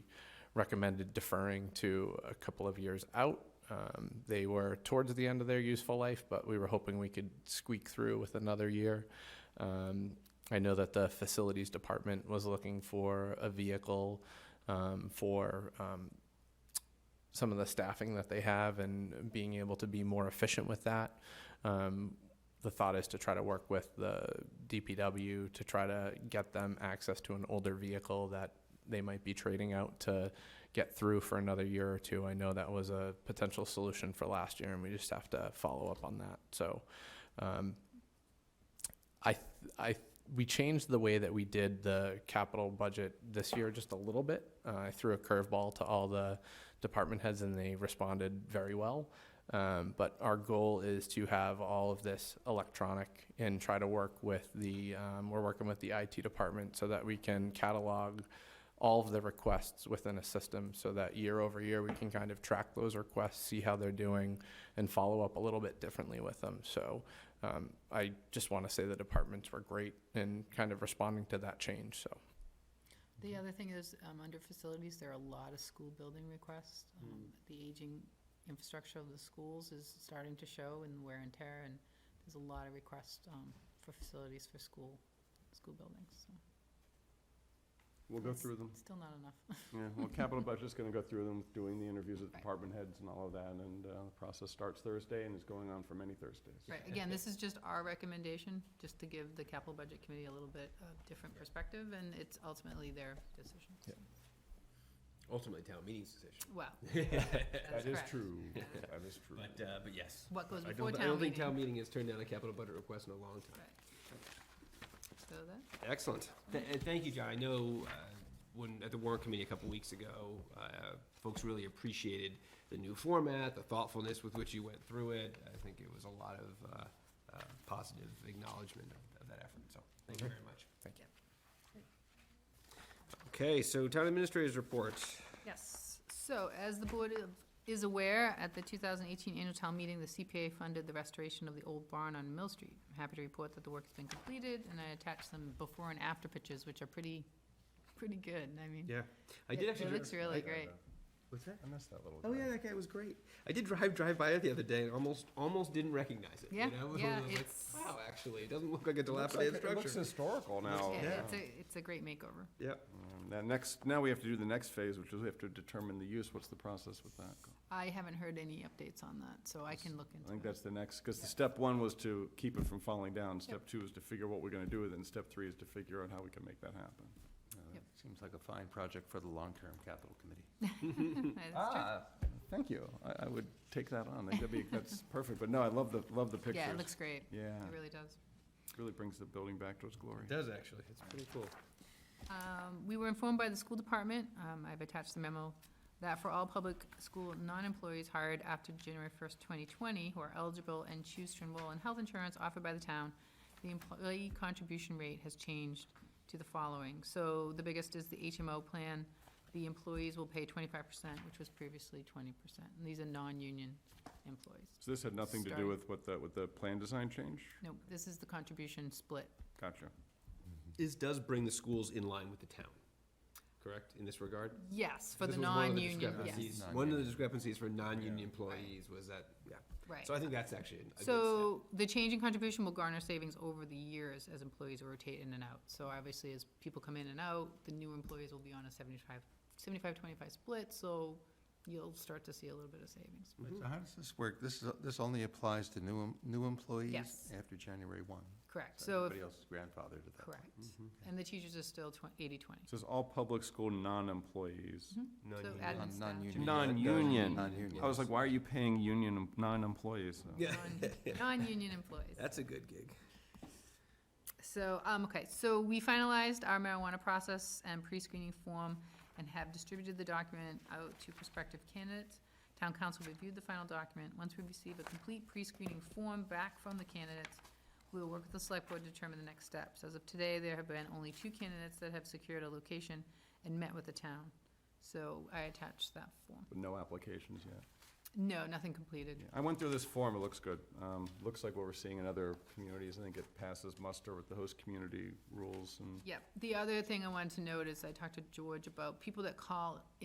recommended deferring to a couple of years out. Um, They were towards the end of their useful life, but we were hoping we could squeak through with another year. Um, I know that the facilities department was looking for a vehicle um, for um, some of the staffing that they have and being able to be more efficient with that. Um, the thought is to try to work with the DPW to try to get them access to an older vehicle that they might be trading out to get through for another year or two. I know that was a potential solution for last year, and we just have to follow up on that. So, um, I, th- I, we changed the way that we did the capital budget this year just a little bit. Uh, I threw a curveball to all the department heads, and they responded very well. Um, but our goal is to have all of this electronic and try to work with the, um, we're working with the IT department so that we can catalog all of the requests within a system so that year over year, we can kind of track those requests, see how they're doing, and follow up a little bit differently with them. So um, I just want to say the departments were great in kind of responding to that change, so. The other thing is, um, under facilities, there are a lot of school building requests. Um, The aging infrastructure of the schools is starting to show in wear and tear, and there's a lot of requests, um, for facilities for school, school buildings, so. We'll go through them. Still not enough. Yeah, well, capital budget's gonna go through them, doing the interviews with Right. department heads and all of that, and, uh, the process starts Thursday and is going on for many Thursdays. Right, again, this is just our recommendation, just to give the capital budget committee a little bit of different perspective, and it's ultimately their decision. Yeah. Ultimately, town meeting's decision. Wow, That that's is correct. true, that is true. But, uh, but yes. What goes I before don't- town I don't think meeting. town meeting has turned down a capital budget request in a long time. Right. So that, Excellent. Th- uh, Thank you, John. I know uh, when, at the warrant committee a couple weeks ago, uh, folks really appreciated the new format, the thoughtfulness with which you went through it. I think it was a lot of uh, uh, positive acknowledgement of- of that effort, so Mm-hmm. thank you very much. Thank you. Okay, so town administrators report. Yes, so as the board of- is aware, at the 2018 annual town meeting, the CPA funded the restoration of the old barn on Mill Street. I'm happy to report that the work's been completed, and I attached some before and after pictures, which are pretty, pretty good, I mean. Yeah. I it- did actually. It dri- looks really I- great. What's that? I missed that little. Oh yeah, guy. that guy was great. I did drive drive by it the other day and almost almost didn't recognize it. Yeah, you know? yeah, I was like, it's- wow, actually, it doesn't look like a It looks dilapidated like- It looks structure. historical now. Yeah, yeah. It's a, it's a great makeover. yeah, Um, Now, next, now we have to do the next phase, which is we have to determine the use, what's the process with that? I haven't heard any updates on that, so I can look I into it. think that's the next, because the step one was to keep it from falling down, step two is to figure what we're gonna do with it, and step three is to figure out how we can make that happen. Uh, Yep. Seems like a fine project for the long-term capital committee. That's Ah. true. Thank you, I, I would take that on, I think that'd be, that's perfect, but no, I love the, love the pictures. Yeah, it looks great. Yeah, It really does. really brings the building back to its glory. it does actually. It's pretty cool. Um, We were informed by the school department, um, I've attached the memo, that for all public school non-employees hired after January first, twenty twenty, who are eligible and choose to enroll in health insurance offered by the town, the employee contribution rate has changed to the following. So the biggest is the HMO plan, the employees will pay twenty-five percent, which was previously twenty percent. And these are non-union employees. So this had nothing to do Starting- with what the, with the plan design change? No, this is the contribution split. Gotcha. This does bring the schools in line with the town, correct? In this regard. Yes, for the This was one of the non-union, yes, discrepancies- One of the discrepancies for non-union Yeah. employees was that. Yeah. right. So I think that's actually. A good step. So the change in contribution will garner savings over the years as employees rotate in and out. So obviously, as people come in and out, the new employees will be on a 75, 75, 25 split, so you'll start to see a little bit of savings. So how does this work? This is, this only applies to new, em- new employees? Yes. After January one? Correct, so, if- Everybody else is grandfathered to that. correct. And the teachers are still 80, 20. It Says all public school non-employees. So Non-union. admin Non- staff. Non-union. Non-union. Non-union. I was like, why are you paying union, em- non-employees? though? Yeah, Non- Non-union employees. that's a good gig. So, um, okay, so we finalized our marijuana process and pre-screening form and have distributed the document out to prospective candidates. Town council reviewed the final document. Once we receive a complete pre-screening form back from the candidates, we will work with the select board to determine the next steps. As of today, there have been only two candidates that have secured a location and met with the town. So I attached that form. With no applications yet. No, nothing completed. Yeah, I went through this form, it looks good. Um, Looks like what we're seeing in other communities. I think it passes muster with the host community rules and Yep. The other thing I wanted to note is I talked to George about people that call